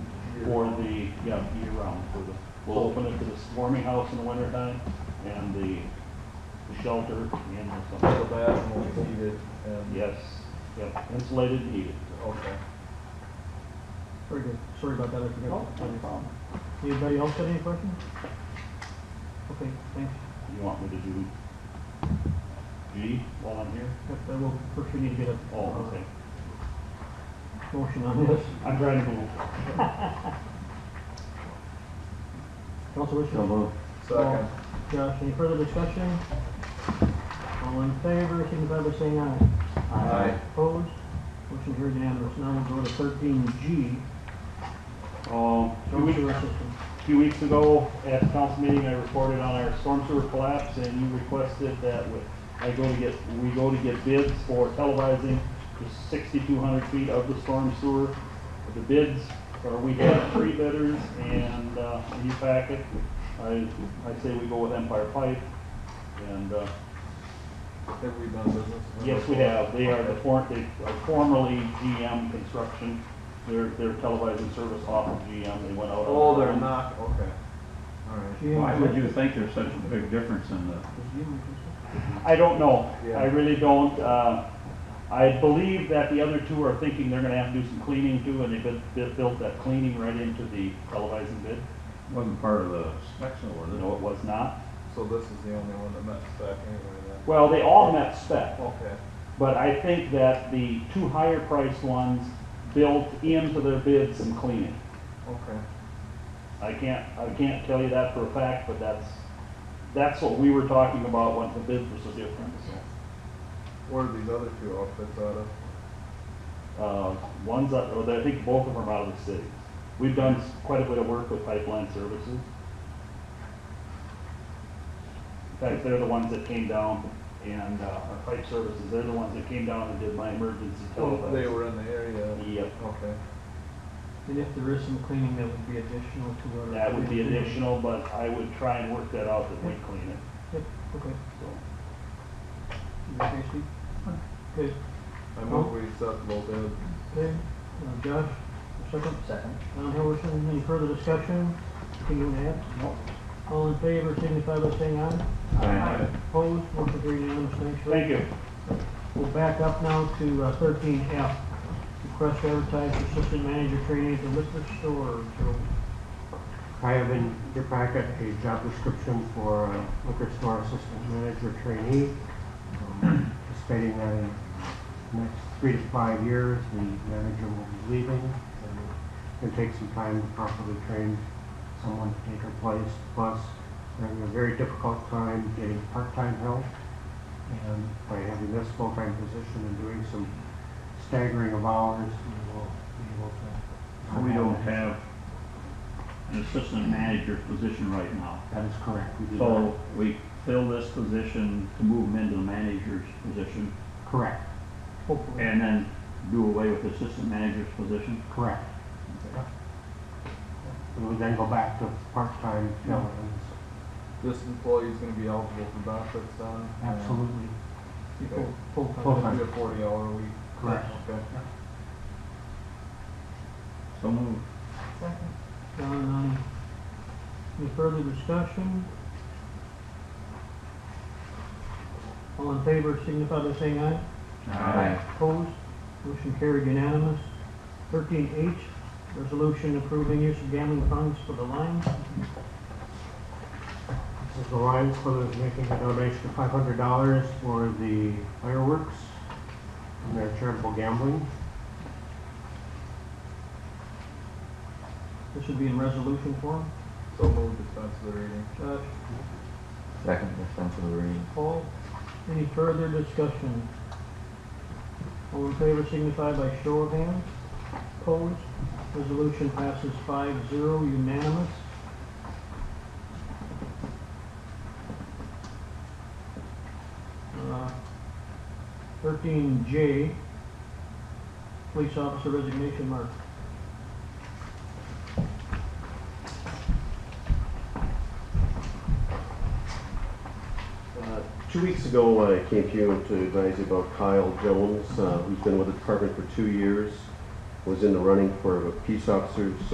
for the, yeah, year round, for the, we'll open it to the warming house in the wintertime and the the shelter and the The summer. bathroom will heat it and. Yes, yep, insulated and heated. Okay. Very good. Sorry about that, I No, forgot. Oh, no problem. Anybody else got any questions? Okay, thanks. You want me to do G while I'm here? Yep, I will, first we need to get a Uh-huh. Oh, uh, okay. motion on this. I'm trying to move. Council wishes? Second. Josh, any further discussion? All in favor, signify by saying aye. Aye. Opposed? Motion carried unanimous. Now we'll go to thirteen G, Um, two storm weeks, sewer system. few weeks ago at the council meeting, I reported on our storm sewer collapse and you requested that we, I go to get, we go to get bids for televising the sixty-two hundred feet of the storm sewer. The bids, or we had three bidders and, uh, in your packet, I, I say we go with Empire Pipe. And, uh, Have we done business? with them Yes, we before? have. They are the Okay. form, they are formerly GM Construction. They're, they're televising service off of GM. They went out. on- Oh, they're not, okay. All right. GM Why would Logistics. you think there's such a big difference in the, GM Logistics. I don't know. Yeah. I really don't. Uh, I believe that the other two are thinking they're gonna have to do some cleaning too, and they built, they built that cleaning right into the televising bid. wasn't part of the specs or the? No, it was not. So this is the only one that met spec anyway then? Well, they all met spec. Okay. But I think that the two higher priced ones built into their bid some cleaning. Okay. I can't, I can't tell you that for a fact, but that's, that's what we were talking about when the bids were so different, so. Where are these other two outfits out of? Uh, one's, out- or I think both of them are out of the city. We've done s- quite a bit of work with pipeline services. In fact, they're the ones that came down and, uh, our pipe services, they're the ones that came down and did my emergency Oh, They telephone. uh, were in the area. Yep, Okay. And if there is some cleaning, that would be additional to what our. that would be additional, but I would try and work that out that we clean it, Yep, okay. so. Okay, Steve? Okay, I move we accept both bids. okay. Uh, Josh, a second? Second. Don Hillerson, any further discussion? Anything to add? Nope. All in favor, signify by saying aye. Aye. Opposed, motion carried unanimous, thanks, Rick. Thank you. We'll back up now to uh, thirteen F. Request to advertise for assistant manager training at the liquor store. So, I have in your packet a job description for a liquor store assistant manager trainee. Um, Stating that in the next three to five years, the manager will be leaving. and It will take some time to properly train someone to take her place. Plus, they're having a very difficult time getting part-time help. And by having this full-time position and doing some staggering of hours, we will be able to. We don't have an assistant manager position right now. That is correct. We do not- So we fill this position to move him into the manager's position Correct, hopefully. and then do away with the assistant manager's position? correct. We would then go back to part-time fill-ins. This employee's gonna be eligible for benefits then? Absolutely, Be full- full-time. Full-time. It'll be a forty hour week. correct. Okay. So move. Don, um, any further discussion? All in favor, signify by saying aye. Opposed? Motion carried unanimous. Thirteen H, resolution approving use of gambling funds for the Lions. This is the Lions Club is making a donation of five hundred dollars for the fireworks and their charitable gambling. This would be in resolution form. So move dispense with the reading. Josh, Second dispense with the reading. Paul, any further discussion? All in favor signify by show of hands. Opposed? Resolution passes five zero unanimous. Uh, Thirteen J, police officer resignation, Mark. Uh, Two weeks ago, I came to you to advise you about Kyle Jones, uh, who's been with the department for two years, was in the running for a peace officer's